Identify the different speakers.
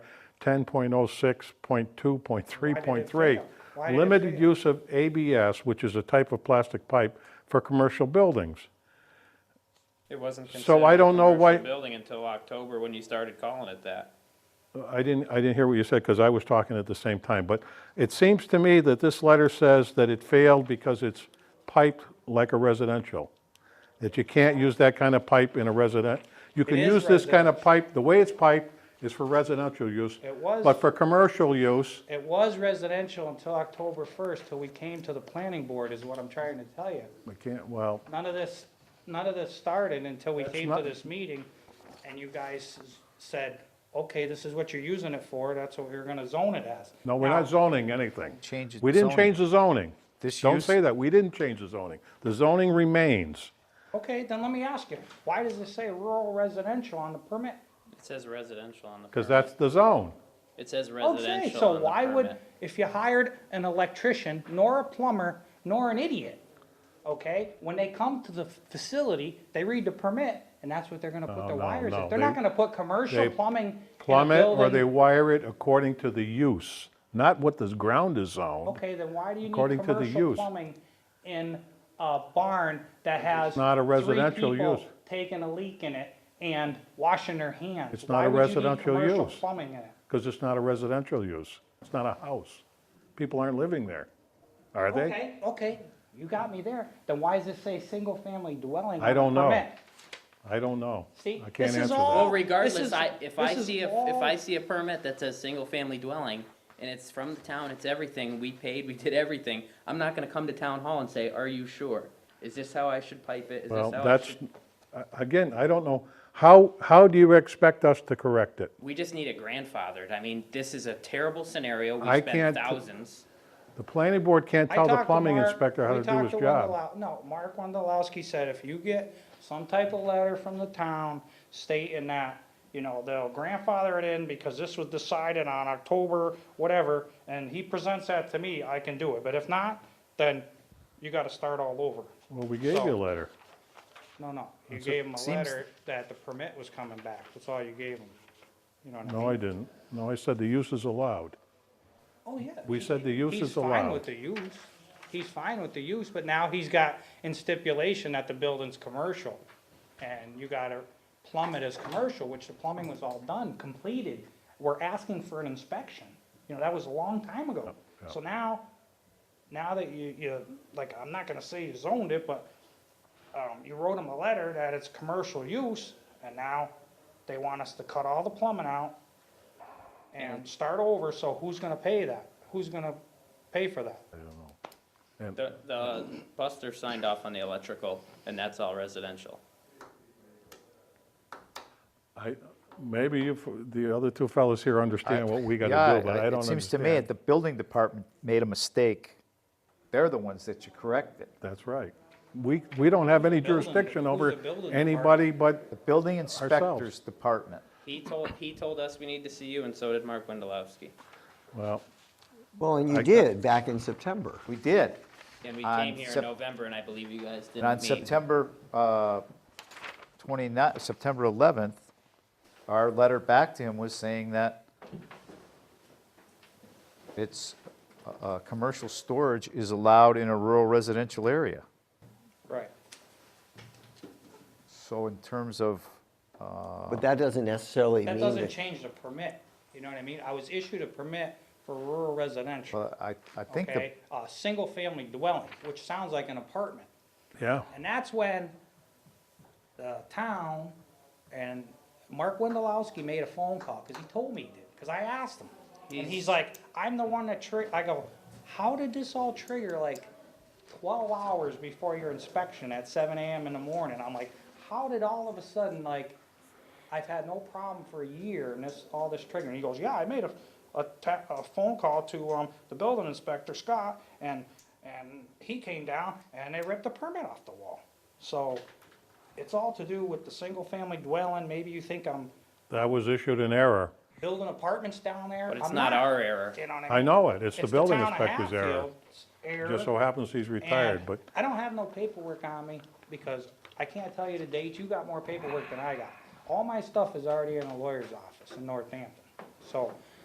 Speaker 1: 10.06.2.3.3.
Speaker 2: Why did it
Speaker 1: Limited
Speaker 2: fail?
Speaker 1: use of ABS, which is a type of plastic pipe for commercial buildings.
Speaker 3: It wasn't
Speaker 1: So I
Speaker 3: considered a
Speaker 1: don't know why-
Speaker 3: commercial building until October when you started calling it that.
Speaker 1: I didn't, I didn't hear what you said because I was talking at the same time, but it seems to me that this letter says that it failed because it's piped like a residential. That you can't use that kind of pipe in a resident, you can
Speaker 2: is
Speaker 1: use this kind of pipe, the way it's piped is for residential use.
Speaker 2: It was-
Speaker 1: But for commercial use,
Speaker 2: It was residential until October first, till we came to the planning board, is what I'm trying to tell you.
Speaker 1: we can't, well,
Speaker 2: None of this, none of this started until we came to
Speaker 1: not-
Speaker 2: this meeting, and you guys s- said, okay, this is what you're using it for, that's what we're gonna zone it as.
Speaker 1: no, we're
Speaker 2: Now,
Speaker 1: not zoning anything.
Speaker 4: Change it
Speaker 1: We didn't
Speaker 4: zoning.
Speaker 1: change the zoning.
Speaker 4: This
Speaker 1: Don't
Speaker 4: use-
Speaker 1: say that, we didn't change the zoning. The zoning remains.
Speaker 2: Okay, then let me ask you, why does it say rural residential on the permit?
Speaker 3: It says residential on the
Speaker 1: Because
Speaker 3: permit.
Speaker 1: that's the zone.
Speaker 3: It says
Speaker 2: Okay,
Speaker 3: residential on
Speaker 2: Oh, so
Speaker 3: the
Speaker 2: why would,
Speaker 3: permit.
Speaker 2: if you hired an electrician, nor a plumber, nor an idiot, okay? When they come to the f- facility, they read the permit, and that's what they're gonna put their
Speaker 1: no,
Speaker 2: wires
Speaker 1: no,
Speaker 2: in. They're not
Speaker 1: they-
Speaker 2: gonna put commercial
Speaker 1: they
Speaker 2: plumbing in a
Speaker 1: plumb it or they
Speaker 2: building.
Speaker 1: wire it according to the use, not what the ground is zoned.
Speaker 2: Okay, then why do you need
Speaker 1: according to the
Speaker 2: commercial
Speaker 1: use.
Speaker 2: plumbing in a barn that has
Speaker 1: not a
Speaker 2: three
Speaker 1: residential
Speaker 2: people
Speaker 1: use.
Speaker 2: Taking a leak in it and washing their hands?
Speaker 1: It's not
Speaker 2: Why
Speaker 1: a
Speaker 2: would you need
Speaker 1: residential
Speaker 2: commercial
Speaker 1: use.
Speaker 2: Plumbing in it.
Speaker 1: Because it's not a residential use. It's not a house. People aren't living there, are they?
Speaker 2: Okay, okay, you got me there. Then why does it say single-family dwelling?
Speaker 1: I
Speaker 2: on the
Speaker 1: don't know.
Speaker 2: permit?
Speaker 1: I don't know.
Speaker 2: See,
Speaker 1: I can't
Speaker 2: Oh, this is
Speaker 1: answer
Speaker 2: all-
Speaker 1: that.
Speaker 3: Well,
Speaker 2: is-
Speaker 3: regardless, I, if I
Speaker 2: this is
Speaker 3: see, a- if
Speaker 2: all-
Speaker 3: I see a permit that says single-family dwelling, and it's from the town, it's everything, we paid, we did everything, I'm not gonna come to town hall and say, are you sure? Is this how I should pipe it? Is this
Speaker 1: Well,
Speaker 3: how I
Speaker 1: that's,
Speaker 3: should-"
Speaker 1: a- again, I don't know. How, how do you expect us to correct it?
Speaker 3: We just need it grandfathered. I mean, this is a terrible scenario.
Speaker 1: I
Speaker 3: We
Speaker 1: can't
Speaker 3: spent
Speaker 1: t-
Speaker 3: thousands.
Speaker 1: The planning board can't
Speaker 2: I
Speaker 1: tell the
Speaker 2: talked to
Speaker 1: plumbing
Speaker 2: Mark-
Speaker 1: inspector how
Speaker 2: we
Speaker 1: to do
Speaker 2: talked
Speaker 1: his
Speaker 2: to
Speaker 1: job.
Speaker 2: Wondolowski- No, Mark Wondolowski said if you get some type of letter from the town stating that, you know, they'll grandfather it in because this was decided on October, whatever, and he presents that to me, I can do it. But if not, then you gotta start all over.
Speaker 1: Well, we gave you a letter.
Speaker 2: No, no, you gave him a
Speaker 4: seems-
Speaker 2: letter that the permit was coming back. That's all you gave him. You know what I mean?
Speaker 1: No, I didn't. No, I said the use is allowed.
Speaker 2: Oh, yeah.
Speaker 1: We
Speaker 2: he-
Speaker 1: said the use is
Speaker 2: He's fine
Speaker 1: allowed.
Speaker 2: with the use. He's fine with the use, but now he's got in stipulation that the building's commercial. And you gotta plumb it as commercial, which the plumbing was all done, completed. We're asking for an inspection. You know, that was a long time ago. So now, now that you, you, like, I'm not gonna say you zoned it, but, um, you wrote him a letter that it's commercial use, and now they want us to cut all the plumbing out and start over, so who's gonna pay that? Who's gonna pay for that?
Speaker 3: The, the Buster signed off on the electrical, and that's all residential.
Speaker 1: I, maybe you, f- the other two fellows here understand what we
Speaker 4: Yeah,
Speaker 1: gotta do, but
Speaker 4: I-
Speaker 1: I don't
Speaker 4: It
Speaker 1: understand.
Speaker 4: seems to me that the building department made a mistake. They're the ones that should correct it.
Speaker 1: That's right. We, we don't have any
Speaker 2: building-
Speaker 1: jurisdiction
Speaker 2: who's
Speaker 1: over
Speaker 2: the building
Speaker 1: anybody but,
Speaker 4: The building inspector's department.
Speaker 3: He told, he told us we need to see you, and so did Mark Wendelowski.
Speaker 1: well,
Speaker 5: Well, and
Speaker 1: I-
Speaker 5: you did back in September.
Speaker 4: We did.
Speaker 3: And we
Speaker 4: On
Speaker 3: came here in
Speaker 4: Sep-
Speaker 3: November, and I believe you guys
Speaker 4: And on
Speaker 3: didn't meet.
Speaker 4: September uh, 29, September 11th, our letter back to him was saying that it's, uh, uh, commercial storage is allowed in a rural residential area.
Speaker 2: Right.
Speaker 4: So in terms of,
Speaker 5: But that doesn't necessarily mean
Speaker 2: That doesn't
Speaker 5: that,
Speaker 2: change the permit, you know what I mean? I was issued a permit for rural residential,
Speaker 4: well, uh, I, I think the
Speaker 2: okay? A single-family dwelling, which sounds like an apartment.
Speaker 1: yeah.
Speaker 2: And that's when the town and Mark Wendelowski made a phone call, because he told me he did, because I asked him. And he's like, I'm the one that tri, I go, how did this all trigger like twelve hours before your inspection at seven AM in the morning? I'm like, how did all of a sudden, like, I've had no problem for a year and this, all this triggered. And he goes, yeah, I made a, a, ta- a phone call to, um, the building inspector, Scott, and, and he came down and they ripped the permit off the wall. So it's all to do with the single-family dwelling. Maybe you think I'm
Speaker 1: That was issued in error.
Speaker 2: building apartments down there.
Speaker 3: But it's
Speaker 2: I'm
Speaker 3: not our error.
Speaker 2: You know what I mean?
Speaker 1: I know it, it's the building
Speaker 2: town of
Speaker 1: inspector's error.
Speaker 2: Hatfield's error,
Speaker 1: Just so happens he's retired,
Speaker 2: and
Speaker 1: but
Speaker 2: I don't have no paperwork on me because I can't tell you the date. You got more paperwork than I got. All my stuff is already in a lawyer's office in Northampton. So